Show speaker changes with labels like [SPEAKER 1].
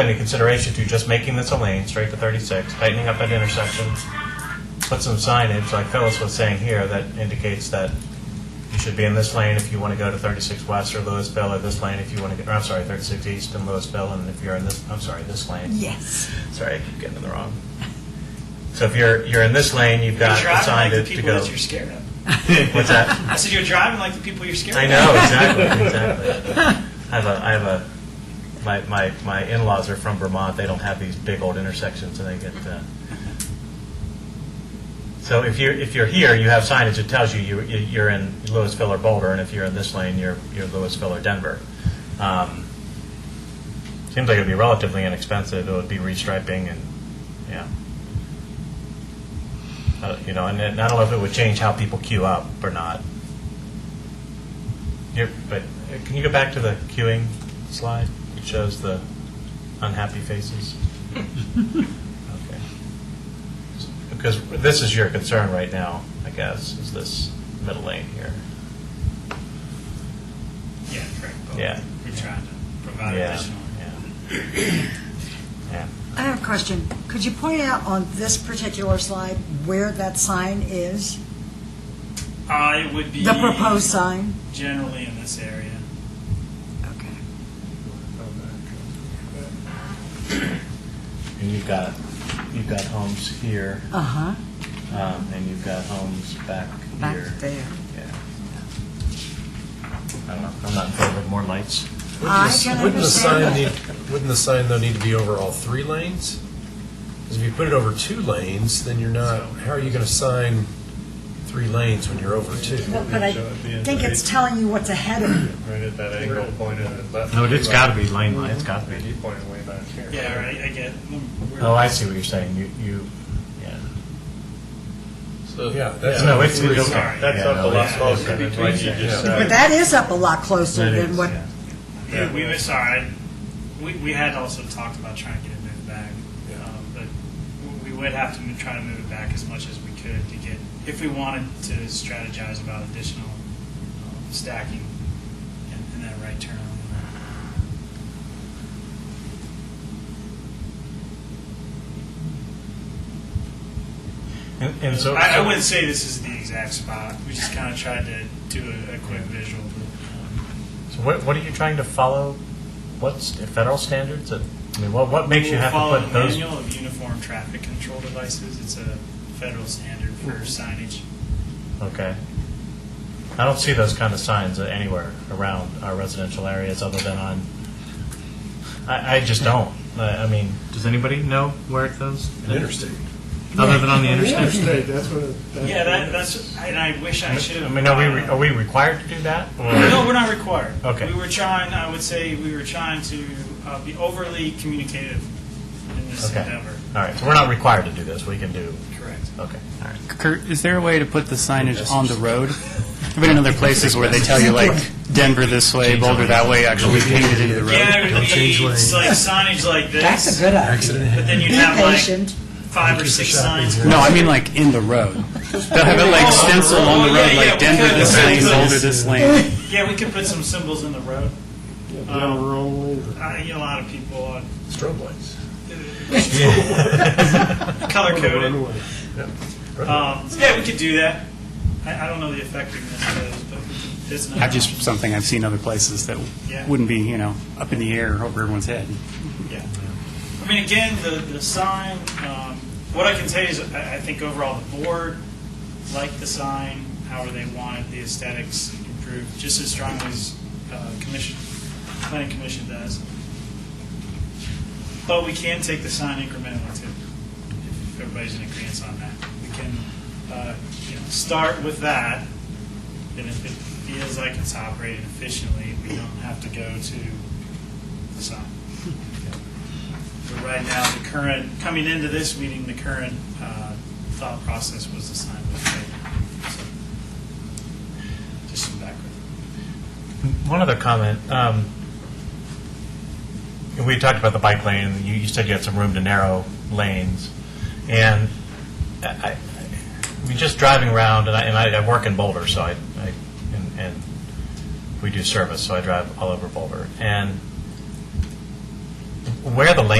[SPEAKER 1] into consideration to just making this a lane straight to 36, tightening up that intersection, put some signage, like Phyllis was saying here, that indicates that you should be in this lane if you want to go to 36 West or Louisville, or this lane if you want to, get. or I'm sorry, 36 East and Louisville, and if you're in this, I'm sorry, this lane.
[SPEAKER 2] Yes.
[SPEAKER 1] Sorry, I keep getting it wrong. So if you're, you're in this lane, you've got
[SPEAKER 3] You're driving like the
[SPEAKER 1] decided to
[SPEAKER 3] people
[SPEAKER 1] go.
[SPEAKER 3] that you're scared of.
[SPEAKER 1] What's that?
[SPEAKER 3] I said, you're driving like the people you're scared
[SPEAKER 1] I
[SPEAKER 3] of.
[SPEAKER 1] know exactly, exactly. I have a, I have a, my, my, my in-laws are from Vermont. They don't have these big old intersections, and they get. Uh, so if you're if you're here, you have signage that tells you you you- you're in Louisville or Boulder, and if you're in this lane, you're you're Louisville or Denver. Um, seems like it'd be relatively inexpensive. It would be restriping and yeah. Uh, you know, and then- I don't know if it would change how people queue up or not. Here, but uh, can you go back to the queuing slide? It shows the unhappy faces. okay. Because this is your concern right now, I guess, is this middle lane here.
[SPEAKER 3] Yeah, correct.
[SPEAKER 1] Yeah.
[SPEAKER 3] We're trying to provide
[SPEAKER 1] Yeah.
[SPEAKER 3] additional.
[SPEAKER 1] Yeah. yeah.
[SPEAKER 2] I have a question. Could you point out on this particular slide where that sign is?
[SPEAKER 3] Uh, it would be
[SPEAKER 2] The proposed sign?
[SPEAKER 3] generally in this area.
[SPEAKER 2] Okay.
[SPEAKER 1] And you've got you've got homes here,
[SPEAKER 2] Uh-huh,
[SPEAKER 1] um, and you've got homes back
[SPEAKER 2] back
[SPEAKER 1] here.
[SPEAKER 2] there.
[SPEAKER 1] Yeah. I don't know. I'm not in favor of more lights.
[SPEAKER 2] I can
[SPEAKER 4] Wouldn't the
[SPEAKER 2] understand
[SPEAKER 4] sign
[SPEAKER 2] that.
[SPEAKER 4] need, wouldn't the sign though need to be over all three lanes? Because if you put it over two lanes, then you're not, how are you going to sign three lanes when you're over two?
[SPEAKER 2] But but I think it's telling you what's ahead of you.
[SPEAKER 5] Right at that angle pointed at left.
[SPEAKER 1] No, it's got to be lane light. It's got to be.
[SPEAKER 5] He pointed way back here.
[SPEAKER 3] Yeah, right. I get. we're-
[SPEAKER 1] Oh, I see what you're saying. You, you, yeah.
[SPEAKER 4] Yeah, that's.
[SPEAKER 1] No, it's, it's okay.
[SPEAKER 3] Sorry.
[SPEAKER 5] That's up the last
[SPEAKER 1] Yeah,
[SPEAKER 5] close,
[SPEAKER 1] no, it's-
[SPEAKER 5] like you just
[SPEAKER 2] But
[SPEAKER 5] said.
[SPEAKER 2] that is up a lot closer
[SPEAKER 1] That
[SPEAKER 2] than
[SPEAKER 1] is,
[SPEAKER 2] what,
[SPEAKER 1] yeah.
[SPEAKER 3] Yeah, we were sorry. We, we had also talked about trying to get it moved back, um, but w- we would have to mo- try to move it back as much as we could to get, if we wanted to strategize about additional um, stacking in, in that right turn. lane.
[SPEAKER 1] And, and so,
[SPEAKER 3] I, I wouldn't say this is the exact spot. We just kind of tried to do a, a quick visual.
[SPEAKER 1] so what, what are you trying to follow? What's the federal standards? That, I mean, what, what makes you
[SPEAKER 3] We'll
[SPEAKER 1] have
[SPEAKER 3] follow
[SPEAKER 1] to put
[SPEAKER 3] the
[SPEAKER 1] those?
[SPEAKER 3] manual of uniform traffic control devices. It's a federal standard for signage.
[SPEAKER 1] Okay. I don't see those kind of signs anywhere around our residential areas, other than on. I, I just don't. I, I mean. Does anybody know where it goes?
[SPEAKER 4] Interstate.
[SPEAKER 1] Other than on the interstate.
[SPEAKER 5] that's what.
[SPEAKER 3] Yeah, that, that's, and I wish I should.
[SPEAKER 1] I mean, are we re- are we required to do that? Or?
[SPEAKER 3] No, we're not required.
[SPEAKER 1] Okay.
[SPEAKER 3] We were trying, I would say, we were trying to uh, be overly communicative in this
[SPEAKER 1] Okay.
[SPEAKER 3] endeavor.
[SPEAKER 1] All right. So we're not required to do this. We can do.
[SPEAKER 3] Correct.
[SPEAKER 1] Okay. All right.
[SPEAKER 6] Kurt, is there a way to put the signage on the road? I've been in other places where they tell you like Denver this way, Boulder that way, actually painted into the road.
[SPEAKER 3] Yeah, it would be
[SPEAKER 4] change
[SPEAKER 3] it's
[SPEAKER 4] lanes.
[SPEAKER 3] like signage like this.
[SPEAKER 2] that's a good idea.
[SPEAKER 4] Accident
[SPEAKER 3] But then
[SPEAKER 4] happened.
[SPEAKER 3] you'd
[SPEAKER 2] Be
[SPEAKER 3] have like
[SPEAKER 2] patient.
[SPEAKER 3] five or six signs.
[SPEAKER 6] No, I mean like in the road. They'll have it like stenciled on the road, like Denver this lane, Boulder this lane.
[SPEAKER 3] Yeah, we could put some symbols in the road. Um, I, you know, a lot of people are
[SPEAKER 4] Strobe lights.
[SPEAKER 3] color coded.
[SPEAKER 4] Right.
[SPEAKER 3] Um, yeah, we could do that. I, I don't know the effectiveness of those, but we could- it's not.
[SPEAKER 6] I've just something I've seen other places that
[SPEAKER 3] Yeah.
[SPEAKER 6] wouldn't be, you know, up in the air over everyone's head.
[SPEAKER 3] Yeah. I mean, again, the, the sign, um, what I can tell you is I, I think overall the board liked the sign, however they wanted the aesthetics improved, just as strongly as, uh, commission, planning commission does. But we can take the sign incrementally too, if everybody's in agreement on that. We can, uh, you know, start with that, and if it feels like it's operating efficiently, we don't have to go to the sign. But right now, the current, coming into this meeting, the current uh, thought process was the sign was fake. So, Just some background.
[SPEAKER 1] One other comment. Um, we talked about the bike lane. You, you said you had some room to narrow lanes, and I, I, I mean, just driving around, and I, and I, I work in Boulder, so I, I and, and we do service, so I drive all over Boulder, and where the lane